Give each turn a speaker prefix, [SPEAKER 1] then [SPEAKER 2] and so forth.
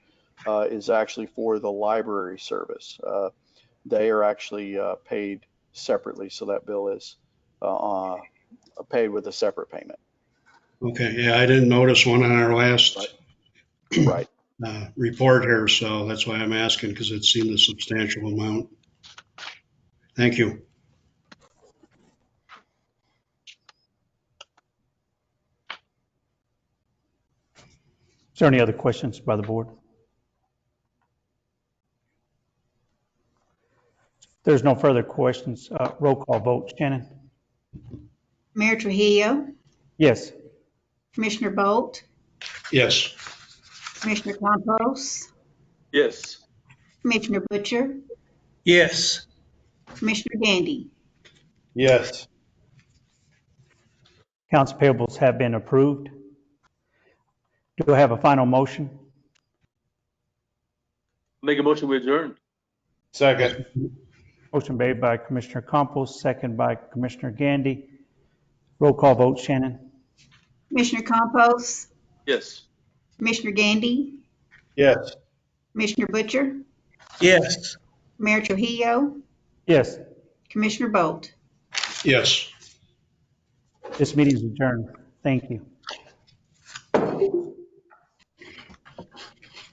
[SPEAKER 1] uh, is actually for the library service. Uh, They are actually uh, paid separately, so that bill is uh, uh, paid with a separate payment.
[SPEAKER 2] Okay, yeah, I didn't notice one on our last
[SPEAKER 1] Right,
[SPEAKER 2] uh, report here, so that's why I'm asking, because it seemed a substantial amount. Thank you.
[SPEAKER 3] Is there any other questions by the board? There's no further questions. Uh, Roll call vote. Shannon?
[SPEAKER 4] Mayor Trujillo,
[SPEAKER 3] Yes.
[SPEAKER 4] Commissioner Bolt,
[SPEAKER 2] Yes,
[SPEAKER 4] Commissioner Campos,
[SPEAKER 5] Yes.
[SPEAKER 4] Commissioner Butcher,
[SPEAKER 6] yes,
[SPEAKER 4] Commissioner Gandy,
[SPEAKER 5] Yes.
[SPEAKER 3] Accounts payables have been approved. Do I have a final motion?
[SPEAKER 5] Make a motion, we adjourn.
[SPEAKER 2] Second.
[SPEAKER 3] Motion made by Commissioner Campos, second by Commissioner Gandy. Roll call vote. Shannon?
[SPEAKER 4] Commissioner Campos,
[SPEAKER 5] Yes.
[SPEAKER 4] Commissioner Gandy,
[SPEAKER 5] Yes.
[SPEAKER 4] Commissioner Butcher,
[SPEAKER 6] yes.
[SPEAKER 4] Mayor Trujillo,
[SPEAKER 3] Yes.
[SPEAKER 4] Commissioner Bolt.
[SPEAKER 2] yes.
[SPEAKER 3] This meeting is adjourned. Thank you.